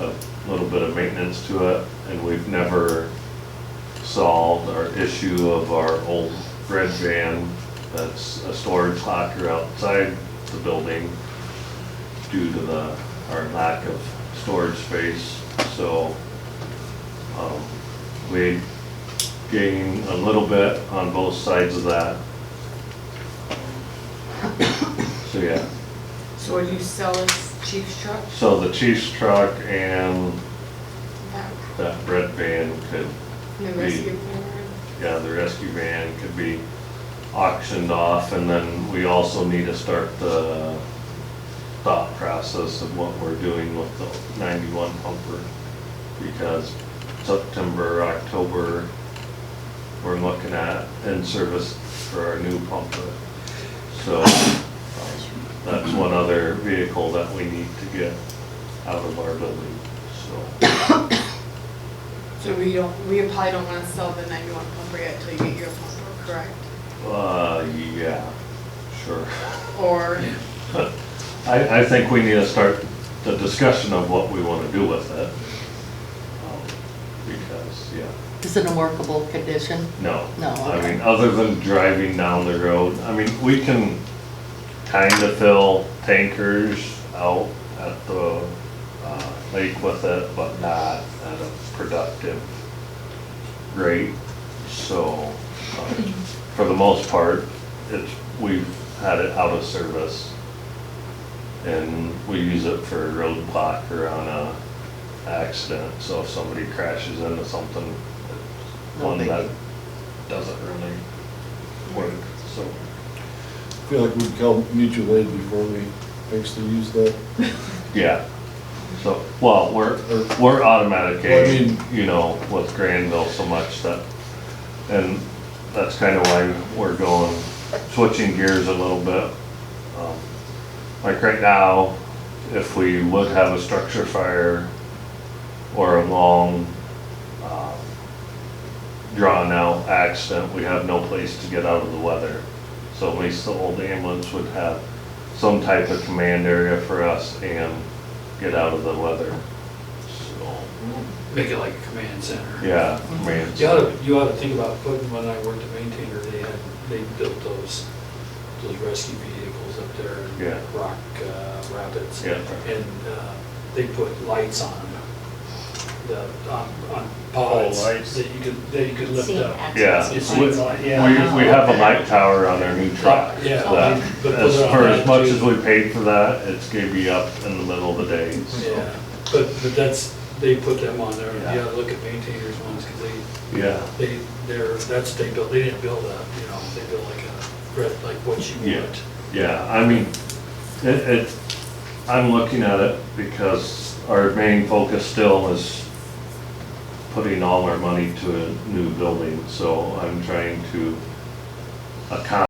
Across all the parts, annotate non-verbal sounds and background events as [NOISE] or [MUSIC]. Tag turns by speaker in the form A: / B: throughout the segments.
A: a little bit of maintenance to it, and we've never solved our issue of our old red van that's a storage locker outside the building due to the, our lack of storage space, so, um, we gain a little bit on both sides of that. So, yeah,
B: So would you sell this chief's truck?
A: so the chief's truck and
B: That-
A: that red van could,
B: The
A: Me.
B: rescue plan?
A: yeah, the rescue van could be auctioned off, and then we also need to start the thought process of what we're doing with the ninety-one pumper, because September, October, we're looking at in service for our new pumper. So, that's one other vehicle that we need to get out of our building, so.
B: So we don't, we probably don't wanna sell the ninety-one pumper yet till you get your pumper, correct?
A: Uh, yeah, sure. [LAUGHS]
B: Or,
A: I, I think we need to start the discussion of what we want to do with it. Um, Because, yeah,
C: Is it in a workable condition?
A: no.
C: No,
A: I
C: okay.
A: mean, other than driving down the road, I mean, we can kind of fill tankers out at the uh, lake with it, but not at a productive rate. So, uh, for the most part, it's, we've had it out of service. And we use it for a roadblock or on a accident, so if somebody crashes into something, it's
C: No
A: one
C: biggie.
A: that doesn't really work, so.
D: I feel like we'd call mutual aid before we actually use that.
A: Yeah, so, well, we're, we're automatic
D: Well, I
A: aid,
D: mean-
A: you know, with Granville so much that, and that's kind of why we're going, switching gears a little bit. Um, Like right now, if we would have a structure fire or a long, um, drawn-out accident, we have no place to get out of the weather. So at least the old ambulance would have some type of command area for us and get out of the weather. So,
E: Make it like a command center.
A: yeah, command
E: You ought to, you ought to think about putting, when I worked at Maintainer, they had, they built those, those rescue vehicles up there
A: Yeah.
E: in Rock uh, Rapids.
A: Yeah.
E: And uh, they put lights on the, on on pods
A: Oh, lights.
E: that you could, that you could lift
C: Seeing
E: up.
A: Yeah,
E: It's
A: we,
E: lights on, yeah.
A: we we have a light tower on our new truck.
E: Yeah.
A: that-
E: But
A: As
E: those are
A: for as much as
E: automatic
A: we paid for that, it's gonna be up in the middle of the day, so,
E: Yeah, but, but that's, they put them on there,
A: Yeah.
E: you ought to look at Maintainer's ones, because they,
A: yeah.
E: They, they're, that's, they built, they didn't build a, you know, they built like a, red- like what you
A: Yeah,
E: want.
A: yeah, I mean, it, it, I'm looking at it because our main focus still is putting all our money to a new building, so I'm trying to accomplish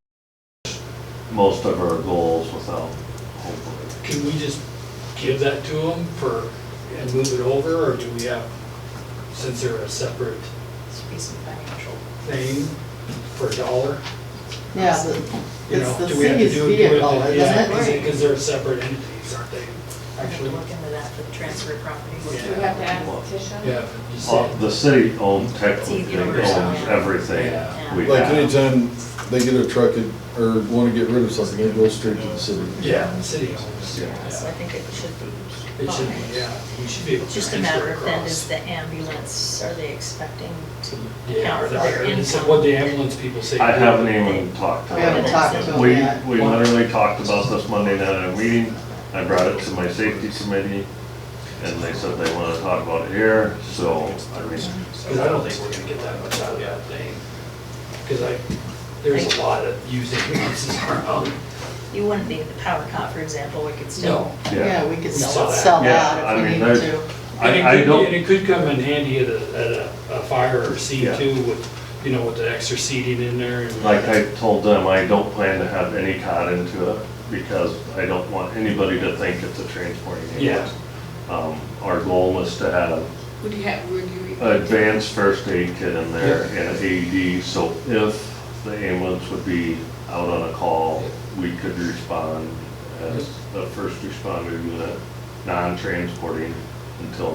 A: most of our goals without, hopefully.
E: Can we just give that to them for, and move it over, or do we have, since they're a separate thing for a dollar?
C: Yeah, the-
E: you
C: it's
E: know,
C: the
E: do we have to
C: city's
E: do- do we have to-
C: vehicle,
E: yeah,
C: isn't
E: 'cause they-
C: it?
E: Cause they're separate entities, aren't they,
F: I have to
E: actually?
F: look into that for the transfer property.
B: do we
E: Yeah.
B: have to add a petition?
E: Yeah, you
A: Uh,
E: said,
A: The city owns, technically
F: It's easier to
A: owns
F: understand.
A: everything
E: Yeah.
A: we
D: Like
A: have.
D: anytime they get a truck it- or want to get rid of something, it goes straight to the city.
E: yeah, the city owns,
A: Yeah.
E: yeah.
F: So I think it should be.
E: It should, be, yeah, we should be able to
F: It's just
E: transfer
F: a matter of then, is
E: across.
F: the ambulance, are they expecting to
E: Yeah,
F: count
E: or
F: for
E: the-
F: their
E: and so
F: income?
E: what the ambulance people say.
A: I haven't even talked to
C: We
A: them.
C: haven't talked to them
A: We,
C: yet.
A: we literally talked about this Monday night at a meeting, I brought it to my safety committee, and they said they wanna talk about it here, so, I mean,
E: Because I don't think we're gonna get that much out of that thing. Because I, there's a lot of using pieces around.
F: You wouldn't be the power cop, for example, we could still.
C: Yeah,
A: yeah.
C: we could
E: We saw
C: sell
E: that.
C: sell
A: Yeah,
C: that
A: I
C: if we
A: mean,
C: needed
A: there's-
C: to.
E: And it
A: I, I
E: could- And
A: don't,
E: it could come in handy at a, at a, a fire or scene
A: Yeah.
E: too with, you know, with the extra seating in there and.
A: like I told them, I don't plan to have any cotton into it, because I don't want anybody to think it's a transporting ambulance. Um, our goal is to have
B: Would you have, would you?
E: Uh,
A: advanced first aid kit in there and AED, so if the ambulance would be out on a call, we could respond as the first responder unit, non-transporting until